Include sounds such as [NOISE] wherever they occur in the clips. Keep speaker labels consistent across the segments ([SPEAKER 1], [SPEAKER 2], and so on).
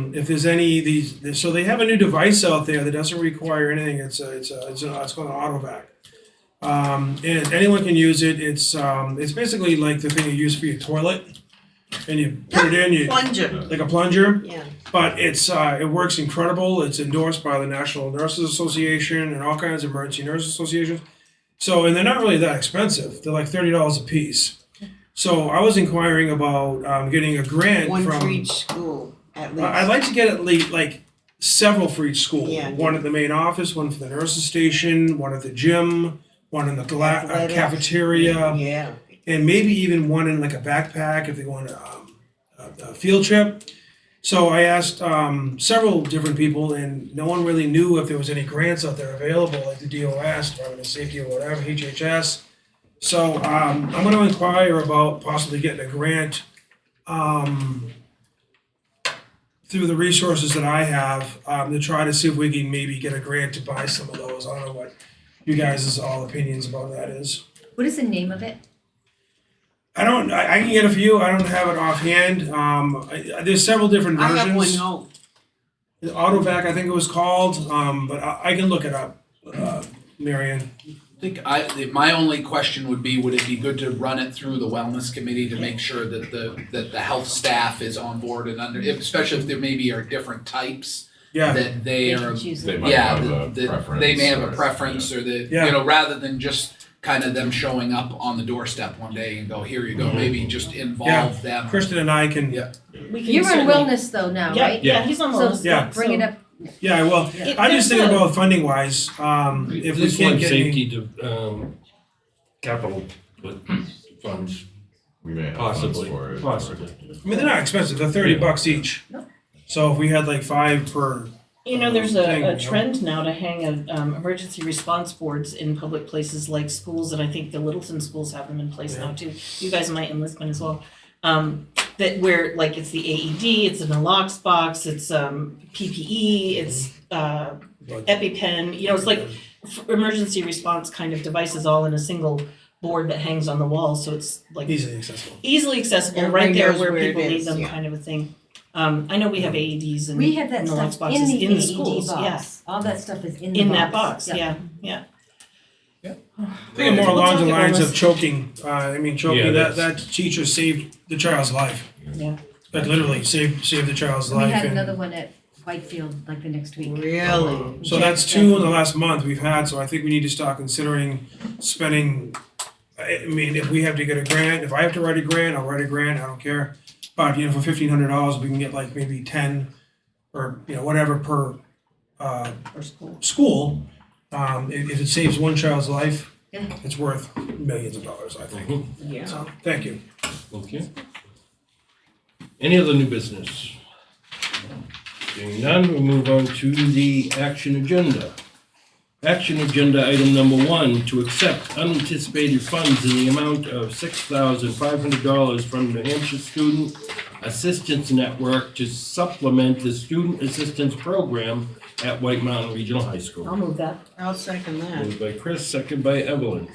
[SPEAKER 1] um, if there's any of these, so they have a new device out there that doesn't require anything. It's a, it's a, it's, a, it's called an AutoVac. Um, and anyone can use it. It's um, it's basically like the thing you use for your toilet, and you put it in, you
[SPEAKER 2] plunger.
[SPEAKER 1] like a plunger.
[SPEAKER 2] Yeah.
[SPEAKER 1] But it's uh, it works incredible. It's endorsed by the National Nurses Association and all kinds of emergency nurse associations. So and they're not really that expensive. They're like thirty dollars a piece. So I was inquiring about um, getting a grant
[SPEAKER 2] One
[SPEAKER 1] from.
[SPEAKER 2] for each school at
[SPEAKER 1] Uh, I'd
[SPEAKER 2] least.
[SPEAKER 1] like to get at least like several for each school.
[SPEAKER 2] Yeah.
[SPEAKER 1] One at the main office, one for the nurses station, one at the gym, one in the gla- uh,
[SPEAKER 2] Athletic.
[SPEAKER 1] cafeteria,
[SPEAKER 2] Yeah.
[SPEAKER 1] and maybe even one in like a backpack if they go on a, um, a, a field trip. So I asked um, several different people, and no one really knew if there was any grants out there available, like the DOS, Department of Safety, or whatever, HHS. So um, I'm going to inquire about possibly getting a grant um, through the resources that I have um, to try to see if we can maybe get a grant to buy some of those. I don't know what you guys' all opinions about that is.
[SPEAKER 3] What is the name of it?
[SPEAKER 1] I don't. I, I can get a few. I don't have it offhand. Um, I, I- there's several different
[SPEAKER 2] I have one
[SPEAKER 1] versions.
[SPEAKER 2] home.
[SPEAKER 1] Autovac, I think it was called. Um, but I, I can look it up. Uh, Marion.
[SPEAKER 4] I think I, the- my only question would be, would it be good to run it through the wellness committee to make sure that the, that the health staff is on board and under, if- especially if there maybe are different types,
[SPEAKER 1] Yeah.
[SPEAKER 4] that
[SPEAKER 2] They
[SPEAKER 4] they are,
[SPEAKER 2] can choose
[SPEAKER 5] They
[SPEAKER 2] it.
[SPEAKER 5] might
[SPEAKER 4] yeah,
[SPEAKER 5] have a
[SPEAKER 4] that, that
[SPEAKER 5] preference.
[SPEAKER 4] they may have
[SPEAKER 5] or-
[SPEAKER 4] a preference or that,
[SPEAKER 1] Yeah.
[SPEAKER 4] you know, rather than just kind of them showing up on the doorstep one day and go, here you
[SPEAKER 5] Mm-hmm.
[SPEAKER 4] go, maybe just involve them.
[SPEAKER 1] Kristen and I can.
[SPEAKER 4] Yeah.
[SPEAKER 6] We can
[SPEAKER 3] You're on
[SPEAKER 6] certainly-
[SPEAKER 3] wellness though now,
[SPEAKER 6] Yeah,
[SPEAKER 3] right?
[SPEAKER 6] yeah, he's on
[SPEAKER 3] So-
[SPEAKER 6] wellness.
[SPEAKER 1] Yeah.
[SPEAKER 3] Bring it up.
[SPEAKER 1] Yeah. Well,
[SPEAKER 6] It-
[SPEAKER 1] I'm just
[SPEAKER 6] there's
[SPEAKER 1] thinking
[SPEAKER 6] a-
[SPEAKER 1] about funding wise. Um, if we
[SPEAKER 7] This
[SPEAKER 1] can't
[SPEAKER 7] one
[SPEAKER 1] get any,
[SPEAKER 7] safety to, um, capital uh, funds,
[SPEAKER 5] We may have funds
[SPEAKER 7] Possibly,
[SPEAKER 5] for it.
[SPEAKER 7] possibly.
[SPEAKER 1] I mean, they're not expensive. They're thirty
[SPEAKER 7] Yeah.
[SPEAKER 1] bucks each.
[SPEAKER 3] No.
[SPEAKER 1] So if we had like five per,
[SPEAKER 6] You know, there's
[SPEAKER 1] Thing,
[SPEAKER 6] a, a
[SPEAKER 1] you know?
[SPEAKER 6] trend now to hang a, um, emergency response boards in public places like schools, and I think the Littleton schools have them in place now too. You guys might enlist one as well. Um, that where like it's the AED, it's an locks box, it's um, PPE, it's uh,
[SPEAKER 1] Like-
[SPEAKER 6] EpiPen. You know, it's like f- emergency response kind of devices all in a single board that hangs on the wall, so it's like
[SPEAKER 1] easily accessible.
[SPEAKER 6] easily accessible,
[SPEAKER 2] Everybody
[SPEAKER 6] right there
[SPEAKER 2] knows
[SPEAKER 6] where
[SPEAKER 2] where it
[SPEAKER 6] people need
[SPEAKER 2] is,
[SPEAKER 6] them,
[SPEAKER 2] yeah.
[SPEAKER 6] kind of a thing. Um, I know we have AEDs and
[SPEAKER 3] We have that
[SPEAKER 6] and the
[SPEAKER 3] stuff
[SPEAKER 6] lunchboxes
[SPEAKER 3] in the
[SPEAKER 6] in the
[SPEAKER 3] AED
[SPEAKER 6] schools,
[SPEAKER 3] box. All that stuff is in the box.
[SPEAKER 6] in that box,
[SPEAKER 3] Yeah.
[SPEAKER 6] yeah, yeah.
[SPEAKER 1] I think more
[SPEAKER 6] We'll
[SPEAKER 1] along the
[SPEAKER 6] talk about
[SPEAKER 1] lines
[SPEAKER 6] this.
[SPEAKER 1] of choking. Uh, I mean, choking.
[SPEAKER 7] Yeah,
[SPEAKER 1] that that teacher saved the child's life.
[SPEAKER 6] Yeah.
[SPEAKER 1] That literally saved saved the child's
[SPEAKER 3] We
[SPEAKER 1] life.
[SPEAKER 3] had
[SPEAKER 1] and-
[SPEAKER 3] another one at Whitefield like the next week.
[SPEAKER 2] Really?
[SPEAKER 1] So that's two in the last month we've had, so I think we need to start considering spending, I I mean, if we have to get a grant, if I have to write a grant, I'll write a grant, I don't care. But, you know, for fifteen hundred dollars, we can get like maybe ten or, you know, whatever per uh
[SPEAKER 6] Or school.
[SPEAKER 1] school. Um if if it saves one child's life,
[SPEAKER 3] Yeah.
[SPEAKER 1] it's worth millions of dollars, I think.
[SPEAKER 6] Yeah.
[SPEAKER 1] So, thank you.
[SPEAKER 7] Okay. Any other new business? Seeing none, we'll move on to the action agenda. Action agenda item number one, to accept unanticipated funds in the amount of six thousand five hundred dollars from New Hampshire Student Assistance Network to supplement the student assistance program at White Mountain Regional High
[SPEAKER 6] I'll
[SPEAKER 7] School.
[SPEAKER 6] move that
[SPEAKER 2] I'll second that.
[SPEAKER 7] Moved by Chris, second by Evelyn.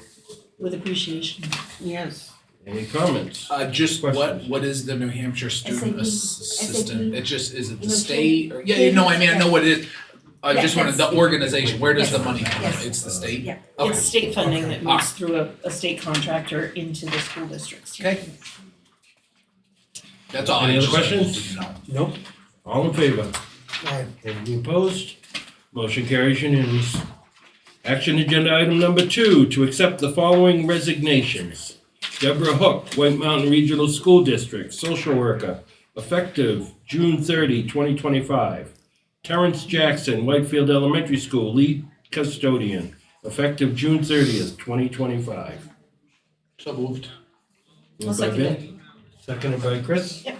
[SPEAKER 6] with appreciation.
[SPEAKER 2] Yes.
[SPEAKER 7] Any comments?
[SPEAKER 4] Uh, just what,
[SPEAKER 7] Questions?
[SPEAKER 4] what is the New Hampshire student
[SPEAKER 3] SAP.
[SPEAKER 4] assistant? It just, is it the
[SPEAKER 3] SAP.
[SPEAKER 4] state or, yeah, no, I mean, I know what it is. I
[SPEAKER 3] Yeah,
[SPEAKER 4] just wanted
[SPEAKER 3] that's-
[SPEAKER 4] the organization, where does the
[SPEAKER 3] yes,
[SPEAKER 4] money come
[SPEAKER 3] yes.
[SPEAKER 4] from? It's the state?
[SPEAKER 3] Yeah.
[SPEAKER 4] Okay.
[SPEAKER 6] It's state funding that moves
[SPEAKER 4] Ah.
[SPEAKER 6] through a, a state contractor into the school districts.
[SPEAKER 4] Okay. That's all. I
[SPEAKER 7] Any other
[SPEAKER 4] just wanted to
[SPEAKER 7] questions?
[SPEAKER 4] know.
[SPEAKER 1] Nope.
[SPEAKER 7] All in favor?
[SPEAKER 1] Alright,
[SPEAKER 7] Any opposed? Motion carries unanimous. Action agenda item number two, to accept the following resignations. Deborah Hook, White Mountain Regional School District, social worker, effective June 30, 2025. Terrence Jackson, Whitefield Elementary School, lead custodian, effective June thirtieth, twenty twenty-five.
[SPEAKER 4] So moved.
[SPEAKER 6] I'll second it.
[SPEAKER 7] Seconded by Chris?
[SPEAKER 6] Yep.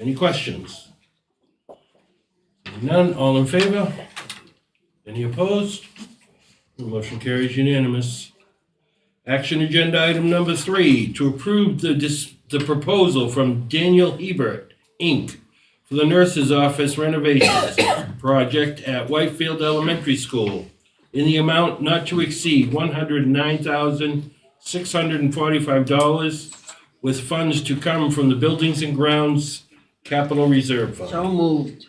[SPEAKER 7] Any questions? None, all in favor? Any opposed? The motion carries unanimous. Action agenda item number three, to approve the dis, the proposal from Daniel Hebert, Inc. for the nurse's office renovations [COUGHS] project at Whitefield Elementary School in the amount not to exceed one hundred nine thousand, six hundred and forty-five dollars with funds to come from the Buildings and Grounds Capital Reserve Fund.
[SPEAKER 2] So moved.